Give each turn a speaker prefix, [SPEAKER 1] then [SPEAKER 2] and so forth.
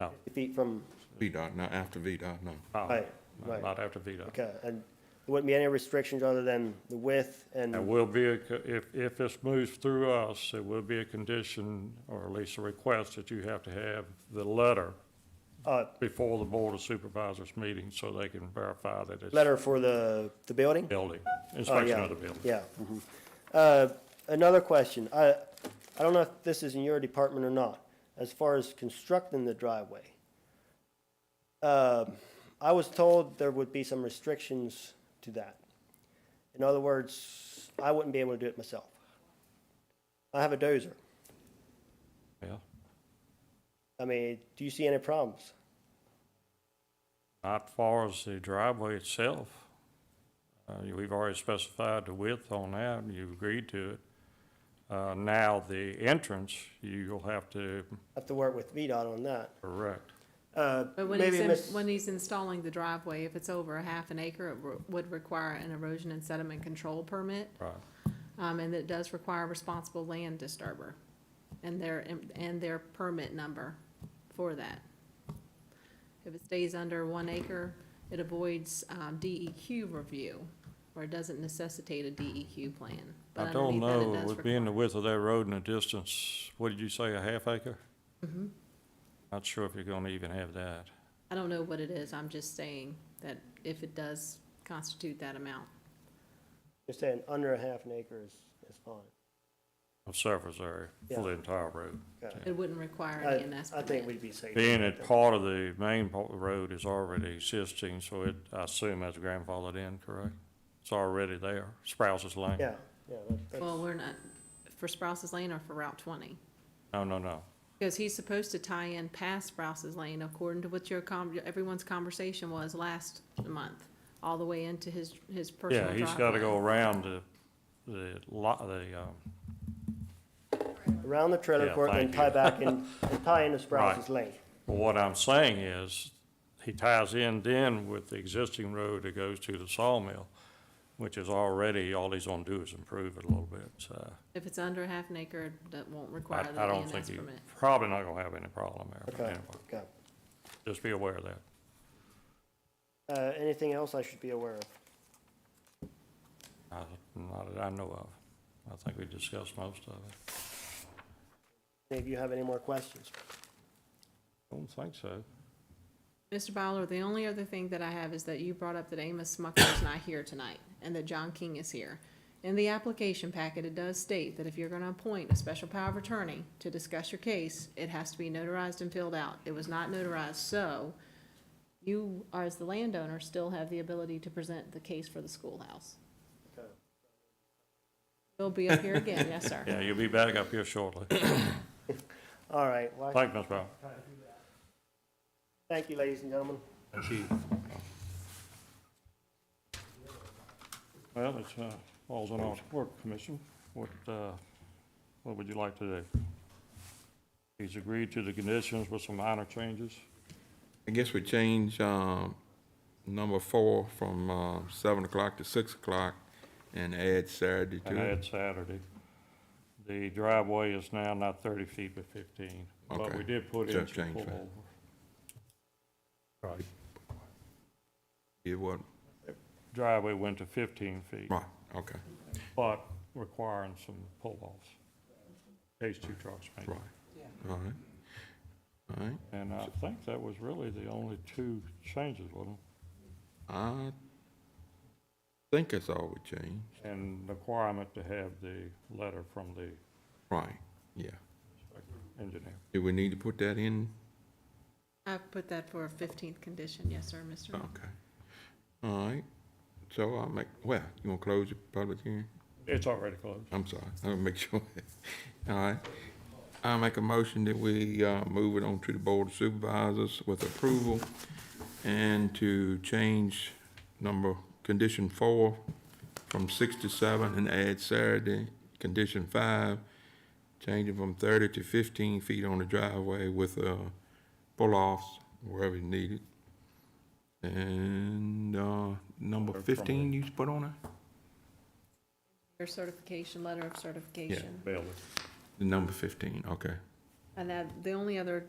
[SPEAKER 1] No.
[SPEAKER 2] 50 feet from,
[SPEAKER 3] VDOT, not after VDOT, no.
[SPEAKER 1] No,
[SPEAKER 2] Right,
[SPEAKER 1] no,
[SPEAKER 2] right.
[SPEAKER 1] Oh. Not after VDOT.
[SPEAKER 2] okay, and there wouldn't be any restrictions other than the width and,
[SPEAKER 1] There will be, a co- if, if this moves through us, it will be a condition, or at least a request, that you have to have the letter
[SPEAKER 2] uh,
[SPEAKER 1] before the Board of Supervisors meeting, so they can verify that it's
[SPEAKER 2] letter for the, the building?
[SPEAKER 1] building,
[SPEAKER 2] Oh,
[SPEAKER 1] inspection
[SPEAKER 2] yeah,
[SPEAKER 1] of the building.
[SPEAKER 2] Yeah. mhm. Uh, Another question. I, I don't know if this is in your department or not, as far as constructing the driveway. Uh, I was told there would be some restrictions to that. In other words, I wouldn't be able to do it myself. I have a dozer.
[SPEAKER 1] Yeah.
[SPEAKER 2] I mean, do you see any problems?
[SPEAKER 1] Not far as the driveway itself. Uh, you- we've already specified the width on that, and you've agreed to it. Uh, now, the entrance, you'll have to
[SPEAKER 2] Have to work with VDOT on that.
[SPEAKER 1] correct.
[SPEAKER 2] Uh,
[SPEAKER 4] But when he's,
[SPEAKER 2] Maybe
[SPEAKER 4] in-
[SPEAKER 2] Miss-
[SPEAKER 4] when he's installing the driveway, if it's over a half an acre, it re- would require an erosion and sediment control permit.
[SPEAKER 1] Right.
[SPEAKER 4] Um, and it does require a responsible land disturber and their, and their permit number for that. If it stays under one acre, it avoids, um, DEQ review, or it doesn't necessitate a DEQ plan. But
[SPEAKER 1] I don't
[SPEAKER 4] underneath that, it
[SPEAKER 1] know,
[SPEAKER 4] does
[SPEAKER 1] with
[SPEAKER 4] require-
[SPEAKER 1] being the width of that road and the distance, what did you say, a half acre?
[SPEAKER 4] Mm-hmm.
[SPEAKER 1] Not sure if you're gonna even have that.
[SPEAKER 4] I don't know what it is, I'm just saying that if it does constitute that amount.
[SPEAKER 2] You're saying under a half an acre is, is fine.
[SPEAKER 1] A surface area for the entire road.
[SPEAKER 2] Okay.
[SPEAKER 4] It wouldn't require
[SPEAKER 2] I-
[SPEAKER 4] an ENS
[SPEAKER 2] I think
[SPEAKER 4] permit.
[SPEAKER 2] we'd be safe.
[SPEAKER 1] Being that part of the main part of the road is already existing, so it, I assume that's grandfathered in, correct? It's already there, Sprouse's Lane.
[SPEAKER 2] Yeah, yeah. that- that's-
[SPEAKER 4] Well, we're not, for Sprouse's Lane or for Route twenty?
[SPEAKER 1] No, no, no.
[SPEAKER 4] Because he's supposed to tie in past Sprouse's Lane according to what your com, everyone's conversation was last month, all the way into his, his personal
[SPEAKER 1] Yeah,
[SPEAKER 4] driveway.
[SPEAKER 1] he's gotta go around the, the lot, the, um,
[SPEAKER 2] around the trailer
[SPEAKER 1] Yeah,
[SPEAKER 2] court and
[SPEAKER 1] thank
[SPEAKER 2] tie
[SPEAKER 1] you.
[SPEAKER 2] back in, and tie into Sprouse's Lane.
[SPEAKER 1] Well, what I'm saying is, he ties in then with the existing road that goes to the sawmill, which is already, all he's gonna do is improve it a little bit, so.
[SPEAKER 4] If it's under half an acre, that won't require
[SPEAKER 1] I,
[SPEAKER 4] the
[SPEAKER 1] I don't
[SPEAKER 4] ENS
[SPEAKER 1] think you,
[SPEAKER 4] permit.
[SPEAKER 1] probably not gonna have any problem there, but
[SPEAKER 2] Okay,
[SPEAKER 1] anyway,
[SPEAKER 2] okay.
[SPEAKER 1] just be aware of that.
[SPEAKER 2] Uh, anything else I should be aware of?
[SPEAKER 1] I- Not that I know of. I think we discussed most of it.
[SPEAKER 2] Any of you have any more questions?
[SPEAKER 1] Don't think so.
[SPEAKER 4] Mr. Bowler, the only other thing that I have is that you brought up that Amos Smucker is not here tonight and that John King is here. In the application packet, it does state that if you're gonna appoint a special power of attorney to discuss your case, it has to be notarized and filled out. It was not notarized, so you, as the landowner, still have the ability to present the case for the schoolhouse.
[SPEAKER 2] Okay.
[SPEAKER 4] He'll be up here again, yes, sir.
[SPEAKER 1] Yeah, you'll be back up here shortly.
[SPEAKER 2] All right, well,
[SPEAKER 1] Thank you, Ms. Brown.
[SPEAKER 2] thank you, ladies and gentlemen.
[SPEAKER 1] Thank you. Well, it's, uh, falls on our work commission. What, uh, what would you like to do? He's agreed to the conditions with some minor changes.
[SPEAKER 3] I guess we change, um, number four from, uh, seven o'clock to six o'clock and add Saturday
[SPEAKER 1] And
[SPEAKER 3] to it.
[SPEAKER 1] add Saturday. The driveway is now not thirty feet but fifteen, but
[SPEAKER 3] Okay.
[SPEAKER 1] we did put in
[SPEAKER 3] Just
[SPEAKER 1] some
[SPEAKER 3] change that.
[SPEAKER 1] pullover. Right.
[SPEAKER 3] It what,
[SPEAKER 1] Driveway went to fifteen feet,
[SPEAKER 3] right, okay,
[SPEAKER 1] but requiring some pull-offs. Case two trucks make it.
[SPEAKER 3] right. All right. All right,
[SPEAKER 1] And I think that was really the only two changes, wasn't
[SPEAKER 3] I think that's all we changed.
[SPEAKER 1] it? And the requirement to have the letter from the
[SPEAKER 3] Right, yeah.
[SPEAKER 1] engineer.
[SPEAKER 3] Do we need to put that in?
[SPEAKER 4] I put that for a fifteenth condition, yes, sir, Mr. Moore.
[SPEAKER 3] Okay. All right, so I'll make, well, you wanna close your public hearing?
[SPEAKER 1] It's already closed.
[SPEAKER 3] I'm sorry, I'll make sure. All right. I make a motion that we, uh, move it on to the Board of Supervisors with approval and to change number, condition four from six to seven and add Saturday. Condition five, changing from thirty to fifteen feet on the driveway with, uh, pull-offs wherever needed. And, uh, number fifteen you put on it?
[SPEAKER 4] Your certification, letter of certification.
[SPEAKER 1] Bailey.
[SPEAKER 3] Number fifteen, okay.
[SPEAKER 4] And that, the only other